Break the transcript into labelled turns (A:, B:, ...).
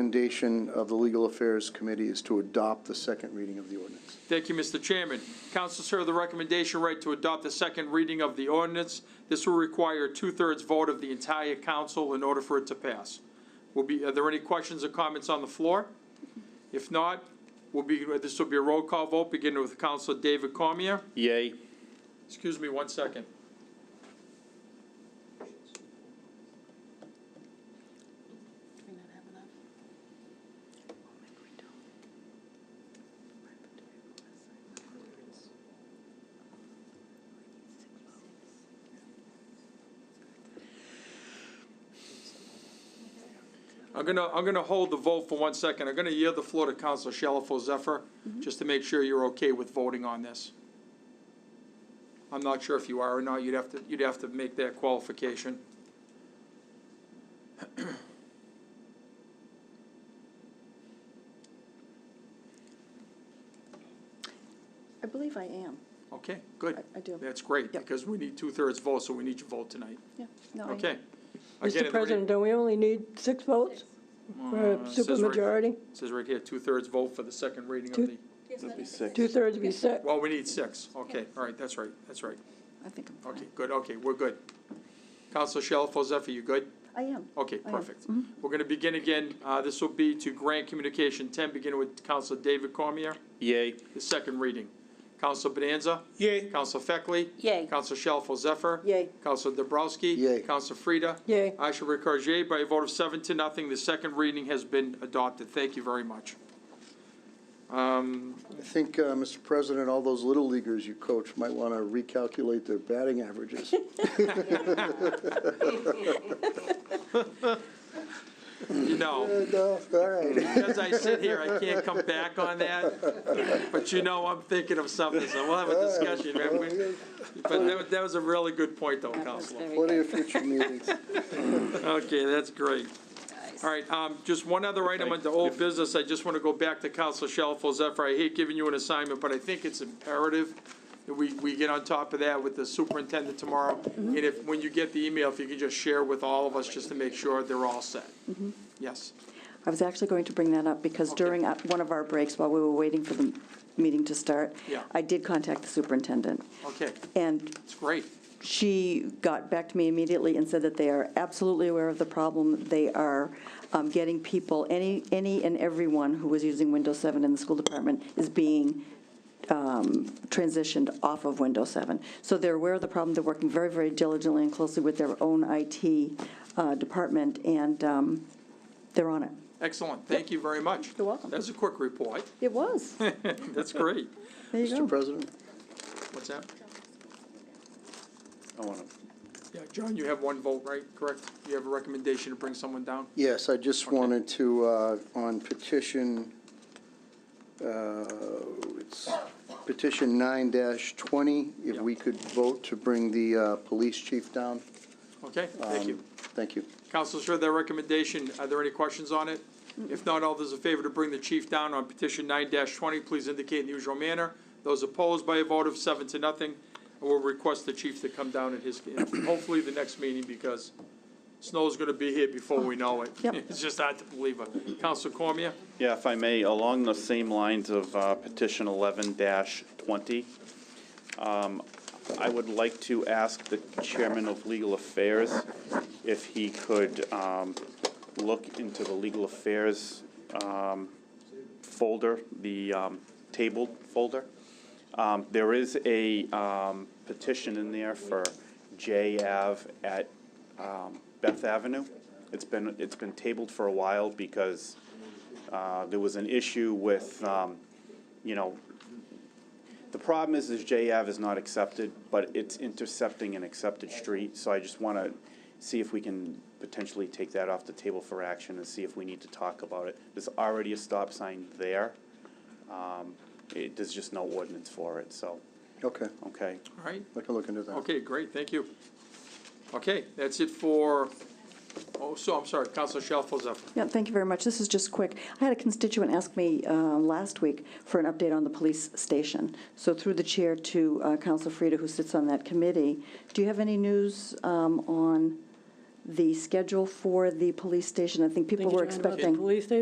A: recommendation of the Legal Affairs Committee is to adopt the second reading of the ordinance.
B: Thank you, Mr. Chairman. Councilors heard the recommendation read to adopt the second reading of the ordinance. This will require a two-thirds vote of the entire council in order for it to pass. Will be, are there any questions or comments on the floor? If not, will be, this will be a roll call vote, beginning with Councilor David Cormier.
C: Yay.
B: Excuse me one second.
D: Do we not have enough? Oh, maybe we don't.
B: I'm gonna, I'm gonna hold the vote for one second. I'm gonna yield the floor to Councilor Shalfo Zephyr,
E: Mm-hmm.
B: just to make sure you're okay with voting on this. I'm not sure if you are or not. You'd have to, you'd have to make that qualification.
D: I believe I am.
B: Okay, good.
D: I- I do.
B: That's great,
D: Yep.
B: because we need two-thirds vote, so we need your vote tonight.
D: Yeah. No, I-
B: Okay. Again,
E: Mr.
B: are there any-
E: President, don't we only need six votes for a
B: Uh, says right-
E: supermajority?
B: Says right here, two-thirds vote for the second reading
E: Two-
B: of the,
C: That'd be six.
E: Two-thirds be six.
B: well, we need six. Okay, all right, that's right, that's right.
D: I think I'm
B: Okay,
D: fine.
B: good, okay, we're good. Counselor Shalfo Zephyr, you good?
D: I am.
B: Okay,
E: Oh,
D: I am.
B: perfect.
E: Mm-hmm.
B: We're going to begin again. Uh, This will be to grant communication 10, beginning with Counselor David Cormier,
C: Yay.
B: the second reading. Counselor Bonanza?
C: Yay.
B: Counselor Feckley?
D: Yay.
B: Counselor Shalfo Zephyr?
E: Yay.
B: Counselor Dabrowski?
A: Yay.
B: Counselor Frida?
E: Yay.
B: I shall record yea by a vote of seven to nothing. The second reading has been adopted. Thank you very much. Um,
A: I think, uh, Mr. President, all those little leaguers you coach might want to recalculate their batting averages.
B: You know,
A: No, All right.
B: as I sit here, I can't come back on that, but you know, I'm thinking of something, so we'll have a discussion. right? But that was- that was a really good point, though, Counselor.
A: Plenty of future meetings.
B: Okay, that's great. All right, um, just one other item under old business, I just want to go back to Counselor Shalfo Zephyr. I hate giving you an assignment, but I think it's imperative that we, we get on top of that with the superintendent tomorrow.
F: Mm-hmm.
B: And if, when you get the email, if you could just share with all of us, just to make sure they're all set.
F: Mm-hmm.
B: Yes,
F: I was actually going to bring that up because
B: Okay.
F: during uh, one of our breaks, while we were waiting for the meeting to start,
B: Yeah.
F: I did contact the superintendent.
B: okay,
F: And
B: it's great.
F: she got back to me immediately and said that they are absolutely aware of the problem. They are um, getting people, any, any and everyone who was using Windows 7 in the school department is being um, transitioned off of Windows 7. So they're aware of the problem. They're working very, very diligently and closely with their own IT uh, department, and um, they're on it.
B: Excellent, thank you very much.
F: You're welcome.
B: That's a quick report,
F: It was.
B: that's great.
F: There you
A: Mr.
F: go.
A: President,
B: What's that?
A: I want to
B: Yeah, John, you have one vote, right, correct? You have a recommendation to bring someone down?
A: Yes, I just wanted to, uh, on petition, uh, it's petition nine twenty, if we could vote to bring the uh, police chief down. Um,
B: Okay, thank you.
A: Thank you.
B: Councilors heard that recommendation. Are there any questions on it? If not, all those in favor to bring the chief down on petition nine twenty, please indicate in the usual manner. Those opposed by a vote of seven to nothing, I will request the chief to come down at his, hopefully the next meeting, because snow's gonna be here before we know it.
F: Yep.
B: It's just hard to believe it. Council Cormier?
C: Yeah, if I may, along the same lines of uh, petition eleven twenty, um, I would like to ask the chairman of legal affairs if he could um, look into the legal affairs um, folder, the um, tabled folder. Um, There is a um, petition in there for J Ave at um, Beth Avenue. It's been, it's been tabled for a while because uh, there was an issue with, um, you know, the problem is, is J Ave is not accepted, but it's intercepting an accepted street, so I just want to see if we can potentially take that off the table for action and see if we need to talk about it. There's already a stop sign there. Um, It, there's just no ordinance for it, so,
A: Okay,
C: okay.
B: All right,
A: I can look into that.
B: okay, great, thank you. Okay, that's it for, oh, so, I'm sorry, Councilor Shalfo Zephyr.
F: Yeah, thank you very much. This is just quick. I had a constituent ask me uh, last week for an update on the police station. So through the chair to uh, Council Frida, who sits on that committee, do you have any news um, on the schedule for the police station. I think people
E: Think
F: were
E: you're talking about the
F: expecting.
E: Police station?